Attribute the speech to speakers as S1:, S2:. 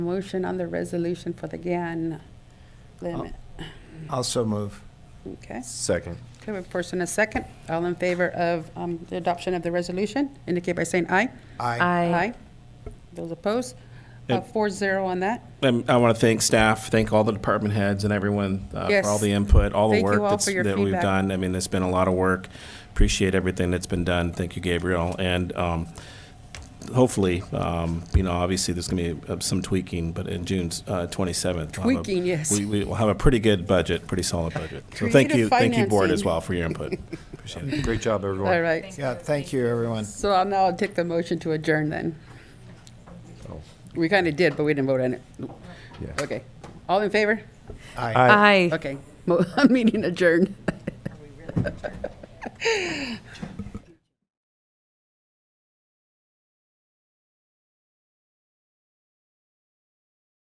S1: Motion on the resolution for the GAN limit.
S2: Also move.
S1: Okay.
S3: Second.
S1: Okay, we have a first and a second. All in favor of um, the adoption of the resolution, indicate by saying aye.
S2: Aye.
S4: I
S1: Those opposed?
S5: Yeah.
S1: Uh, Four zero on that.
S5: Um, I want to thank staff, thank all the department heads and everyone uh,
S1: Yes.
S5: for all the input, all the
S1: Thank you
S5: work
S1: all
S5: that's-
S1: for your
S5: that we've
S1: feedback.
S5: done. I mean, it's been a lot of work. Appreciate everything that's been done. Thank you, Gabriel. And um, hopefully, um, you know, obviously, there's going to be uh, some tweaking, but in June uh, 27th. we'll have a-
S1: Tweaking, yes.
S5: We we will have a pretty good budget, pretty solid budget. So thank
S1: Creative
S5: you, thank you, board, as
S1: financing.
S5: well, for your input. Appreciate it.
S3: Great job, everyone.
S1: All right.
S2: Yeah, thank you, everyone.
S1: So I'll now take the motion to adjourn then. We kind of did, but we didn't vote on it.
S3: Yeah.
S1: Okay. All in favor?
S2: Aye.
S4: I.
S1: Okay. Mo- Meeting adjourned.